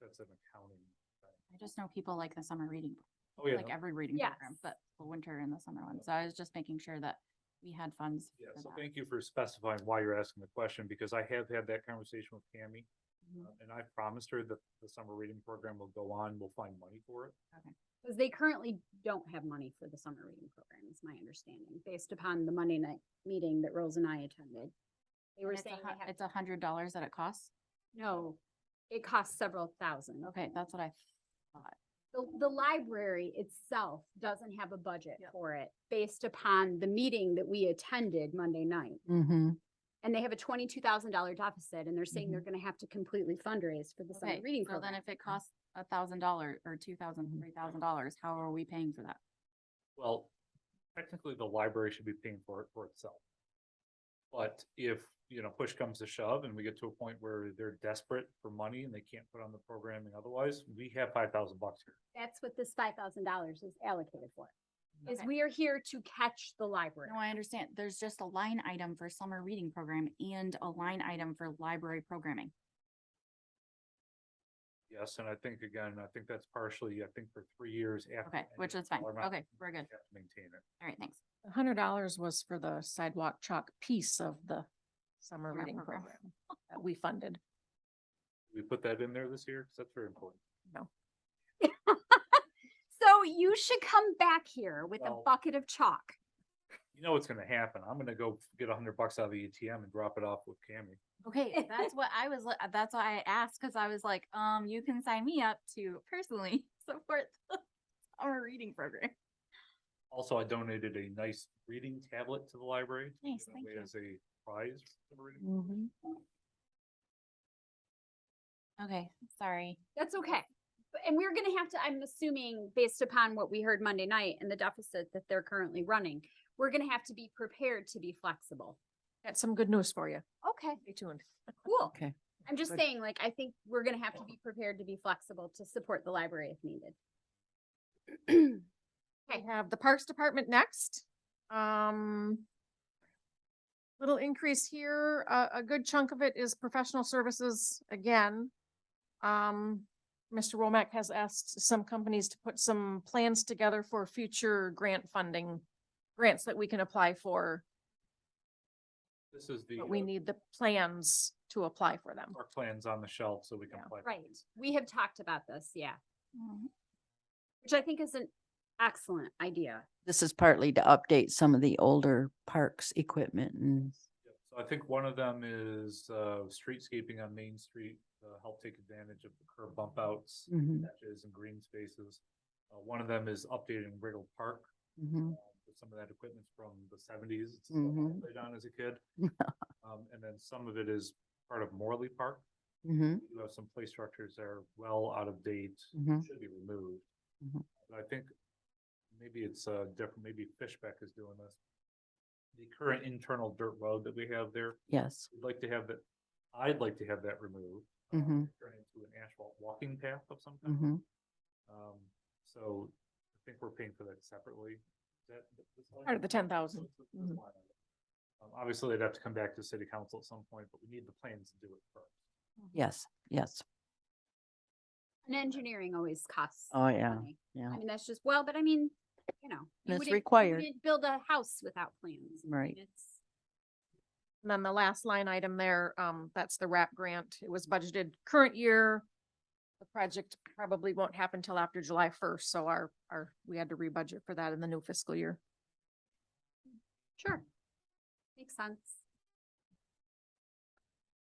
that's an accounting. I just know people like the summer reading, Oh, yeah. like every reading Yes. program, but the winter and the summer one. So I was just making sure that we had funds Yeah, for so that. thank you for specifying why you're asking the question, because I have had that conversation with Tammy. Mhm. uh, And I promised her that the summer reading program will go on, we'll find money for it. Because they currently don't have money for the summer reading program, is my understanding, based upon the Monday night meeting that Rose and I attended. They And were it's a saying hu- they have, It's a hundred dollars that it costs. no, it costs several thousand. Okay, that's what I, The, the library itself doesn't have a budget Yep. for it, based upon the meeting that we attended Monday night. Mm-hmm. And they have a twenty-two thousand dollar deficit, and they're saying they're gonna have to completely fundraise for the summer Mm-hmm. okay, reading so then program. if it costs a thousand dollar or two thousand, three thousand dollars, how are we paying for that? Well, technically, the library should be paying for it for itself. But if, you know, push comes to shove and we get to a point where they're desperate for money and they can't put on the programming otherwise, we have five thousand bucks here. That's what this five thousand dollars is allocated for, is Okay. we are here to catch the library. No, I understand. There's just a line item for summer reading program and a line item for library programming. Yes, and I think again, I think that's partially, I think for three years after. Okay, which is fine. Okay, we're good. Have to maintain it. All right, thanks. A hundred dollars was for the sidewalk chalk piece of the summer Summer reading program. program that we funded. We put that in there this year, because that's very important. So you should come back here with a Well- bucket of chalk. You know what's gonna happen. I'm gonna go get a hundred bucks out of the ATM and drop it off with Cammy. Okay, that's what I was, li- that's why I asked, cause I was like, um, you can sign me up to personally support the summer reading program. Also, I donated a nice reading tablet to the library. to Nice, give thank away you. As a prize. for the reading. Okay, sorry. That's okay. But- And we're gonna have to, I'm assuming, based upon what we heard Monday night and the deficit that they're currently running, we're gonna have to be prepared to be flexible. Got some good news for you. Okay, Stay tuned. cool. Okay. I'm just Good. saying, like, I think we're gonna have to be prepared to be flexible to support the library if needed. We Okay. have the Parks Department next. Um. Little increase here, a, a good chunk of it is professional services again. Um, Mr. Womack has asked some companies to put some plans together for future grant funding. Grants that we can apply for, This is the. but we uh, need the plans to apply for them. Our plans on the shelf so we can. Yeah. apply for Right, these. we have talked about this, yeah, Mm, which I think is an excellent idea. This is partly to update some of the older parks equipment and Yep. So I think one of them is, uh, streetscaping on Main Street, uh, help take advantage of the curb bump outs. Mhm, patches and green spaces. Uh, one of them is updating Riddle Park. mhm. um, with Some of that equipment's from the seventies. It's stuff I Mhm. played on as a kid. Um, and then some of it is part of Morley Park. Mhm, We do have some play structures that are well out of date, Mhm. should be removed. Mhm. But I think maybe it's, uh, different, maybe Fishbeck is doing this. The current internal dirt road that we have there, Yes, we'd like to have that, I'd like to have that removed. uh, Mhm. Turn into an asphalt walking path of some kind. mhm. Um, so I think we're paying for that separately. Is that th- this line Part of the item? 10,000. This- this line item. Um, obviously they'd have to come back to city council at some point, but we need the plans to do it first. yes, yes. And engineering always costs. Oh, yeah, money. yeah. I mean, that's just, well, but I mean, you know. you It's wouldn't- you required. wouldn't Build a house without plans. I mean, Right. It's, And then the last line item there, um, that's the wrap grant. It was budgeted current year. The project probably won't happen till after July first, so our, our, we had to rebudget for that in the new fiscal year. sure. Makes sense.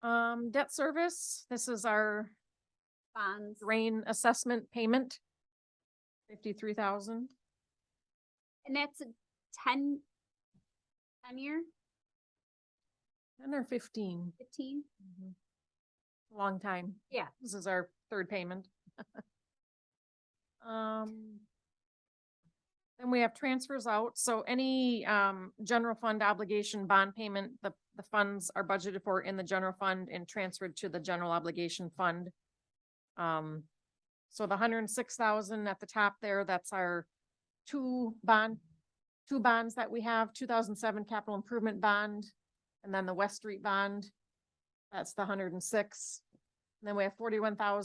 Um, debt service, this is our Bonds. drain assessment payment. Fifty-three thousand. And that's a ten, ten year, Ten or fifteen, fifteen? Mm-hmm. long time. Yeah. This is our third payment. Um. Then we have transfers out, so any um general fund obligation bond payment, the the funds are budgeted for in the general fund and transferred to the general obligation fund. Um, so the hundred and six thousand at the top there, that's our two bond, two bonds that we have, two thousand seven capital improvement bond, and then the West Street bond. That's the hundred and six. Then we have forty-one thousand